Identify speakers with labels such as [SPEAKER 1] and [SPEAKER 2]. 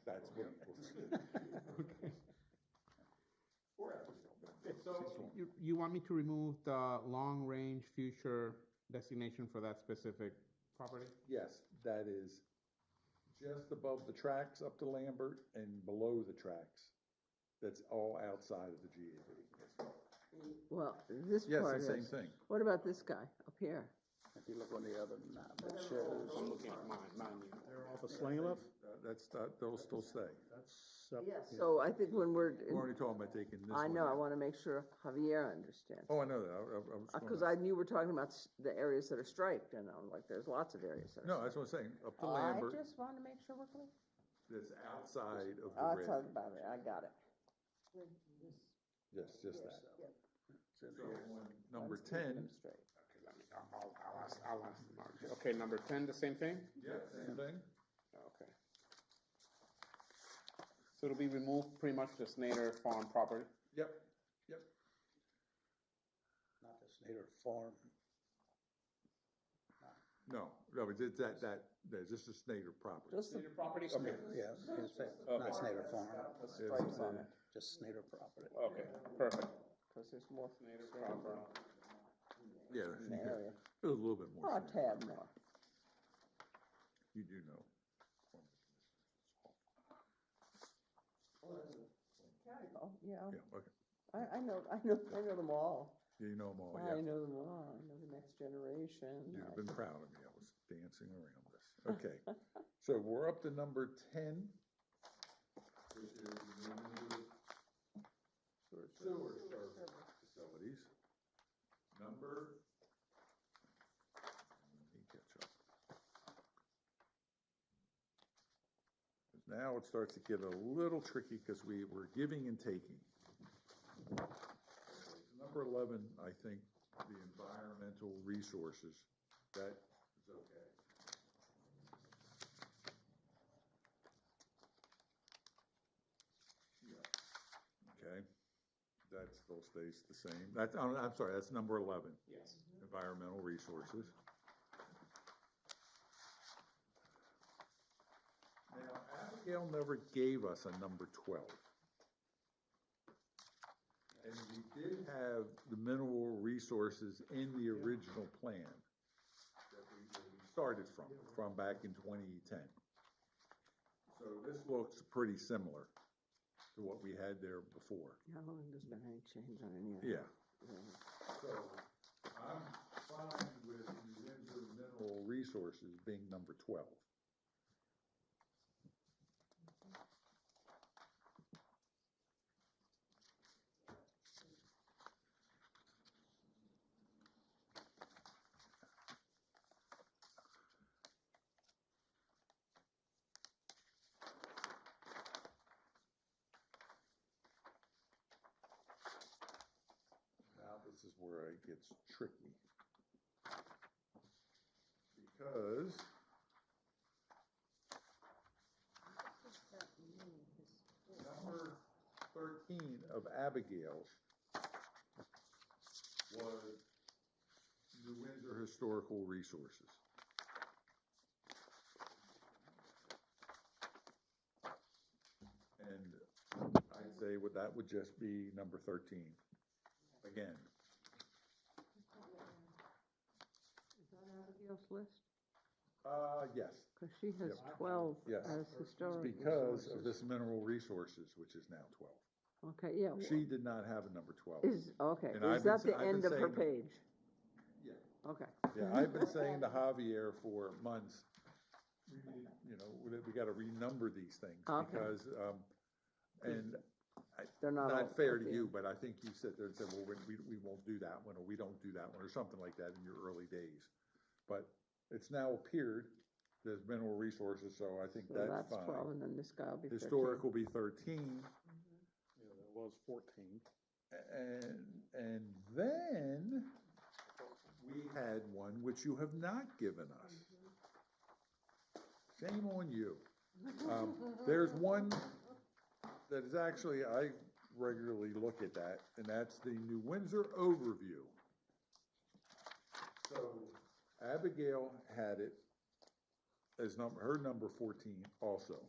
[SPEAKER 1] you want me to remove the long-range future designation for that specific property?
[SPEAKER 2] Yes, that is just above the tracks up to Lambert and below the tracks. That's all outside of the GAV.
[SPEAKER 3] Well, this
[SPEAKER 2] Yes,
[SPEAKER 3] part
[SPEAKER 2] the
[SPEAKER 3] is.
[SPEAKER 2] same thing.
[SPEAKER 3] What about this guy up here?
[SPEAKER 4] If you look on the other map, it shows,
[SPEAKER 5] The slang up?
[SPEAKER 2] That- That's, that- they'll still stay.
[SPEAKER 3] So I think when we're,
[SPEAKER 2] We're only talking about taking this
[SPEAKER 3] I
[SPEAKER 2] one
[SPEAKER 3] know, I
[SPEAKER 2] out.
[SPEAKER 3] wanna make sure Javier understands.
[SPEAKER 2] Oh, I know that, I, I- I was.
[SPEAKER 3] Uh,
[SPEAKER 2] gonna-
[SPEAKER 3] Cause I knew we're talking about s- the areas that are striped, and I'm like, there's lots of areas that are.
[SPEAKER 2] No, that's what I'm saying, up to
[SPEAKER 3] striped. I
[SPEAKER 2] Lambert,
[SPEAKER 3] just wanted to make sure we're clear.
[SPEAKER 2] that's outside of
[SPEAKER 3] I'll
[SPEAKER 2] the red.
[SPEAKER 3] talk about it, I got it.
[SPEAKER 2] Yes, just that.
[SPEAKER 4] it's in
[SPEAKER 2] So,
[SPEAKER 4] here.
[SPEAKER 2] Number
[SPEAKER 3] I'm
[SPEAKER 2] ten,
[SPEAKER 3] keeping them straight.
[SPEAKER 1] Okay, let me, I'll, I'll ask, I'll ask Mark. Okay, number ten, the same thing?
[SPEAKER 2] yeah, same thing.
[SPEAKER 1] Okay. So it'll be removed pretty much the Snyder Farm property?
[SPEAKER 2] Yep,
[SPEAKER 4] not the Snyder Farm.
[SPEAKER 2] no, no, it's it's that, that, that's just a Snyder property.
[SPEAKER 4] Just the,
[SPEAKER 1] property? Okay,
[SPEAKER 4] yeah, I was gonna say,
[SPEAKER 1] Okay.
[SPEAKER 4] not Snyder Farm,
[SPEAKER 2] stripes on
[SPEAKER 4] just Snyder property.
[SPEAKER 1] okay, perfect.
[SPEAKER 3] Cause there's more.
[SPEAKER 1] Snyder property.
[SPEAKER 2] Yeah,
[SPEAKER 3] in the area.
[SPEAKER 2] a little bit more.
[SPEAKER 3] Or a
[SPEAKER 2] Snyder.
[SPEAKER 3] tad more.
[SPEAKER 2] You do know.
[SPEAKER 3] Oh, yeah,
[SPEAKER 2] Yeah, okay.
[SPEAKER 3] I, I know, I know, I know them all.
[SPEAKER 2] Yeah, You know them all,
[SPEAKER 3] I
[SPEAKER 2] Oh, yeah.
[SPEAKER 3] know them all, I know the next generation.
[SPEAKER 2] You'd
[SPEAKER 3] I-
[SPEAKER 2] have been proud of me. I was dancing around this. Okay. So we're up to number ten. which is the new Sewer service facilities. Number. Let me catch up. 'Cause Now it starts to get a little tricky because we were giving and taking. Number eleven, I think, the environmental resources, that is okay. Yeah. Okay, that still stays the same, that's, I'm, I'm sorry, that's number eleven,
[SPEAKER 1] Yes.
[SPEAKER 2] environmental resources. Now, Abigail never gave us a number twelve. And we did have the mineral resources in the original plan that we, that we started from, from back in twenty ten. So this looks pretty similar to what we had there before.
[SPEAKER 3] How long has been any change on any of
[SPEAKER 2] Yeah.
[SPEAKER 3] Yeah.
[SPEAKER 2] So I'm fine with New Windsor Mineral Resources being number twelve. Now, this is where it gets tricky. Because. Number thirteen of Abigail's was New Windsor Historical Resources. And I'd say would- that would just be number thirteen again.
[SPEAKER 3] Is that Abigail's list?
[SPEAKER 2] Uh, yes,
[SPEAKER 3] Cause she has
[SPEAKER 2] Yep.
[SPEAKER 3] twelve
[SPEAKER 2] Yes.
[SPEAKER 3] as historic.
[SPEAKER 2] because of
[SPEAKER 3] resources.
[SPEAKER 2] this mineral resources, which is now twelve.
[SPEAKER 3] Okay, yeah. wha-
[SPEAKER 2] She did not have a number twelve.
[SPEAKER 3] Oh, Is, okay,
[SPEAKER 2] And I've
[SPEAKER 3] is
[SPEAKER 2] been
[SPEAKER 3] that
[SPEAKER 2] sa- I've
[SPEAKER 3] the
[SPEAKER 2] been
[SPEAKER 3] end of her
[SPEAKER 2] saying that-
[SPEAKER 3] page?
[SPEAKER 2] Yeah.
[SPEAKER 3] Okay,
[SPEAKER 2] Yeah, I've been saying to Javier for months, we need, you know, we, we gotta renumber these things
[SPEAKER 3] Okay.
[SPEAKER 2] because, um, and
[SPEAKER 3] they're not all.
[SPEAKER 2] not fair
[SPEAKER 3] at
[SPEAKER 2] to
[SPEAKER 3] the
[SPEAKER 2] you,
[SPEAKER 3] end.
[SPEAKER 2] but I think you sit there and said, well, we, we- we won't do that one, or we don't do that one, or something like that in your early days. But it's now appeared, there's mineral resources, so I think
[SPEAKER 3] So
[SPEAKER 2] that's
[SPEAKER 3] that's twelve,
[SPEAKER 2] fine.
[SPEAKER 3] and then this guy will be thirteen.
[SPEAKER 2] Historic will be thirteen.
[SPEAKER 5] Yeah, that was fourteen.
[SPEAKER 2] And, and then we had one which you have not given us. Shame on you. Um, there's one that is actually, I regularly look at that, and that's the New Windsor overview. So Abigail had it as number, her number fourteen also.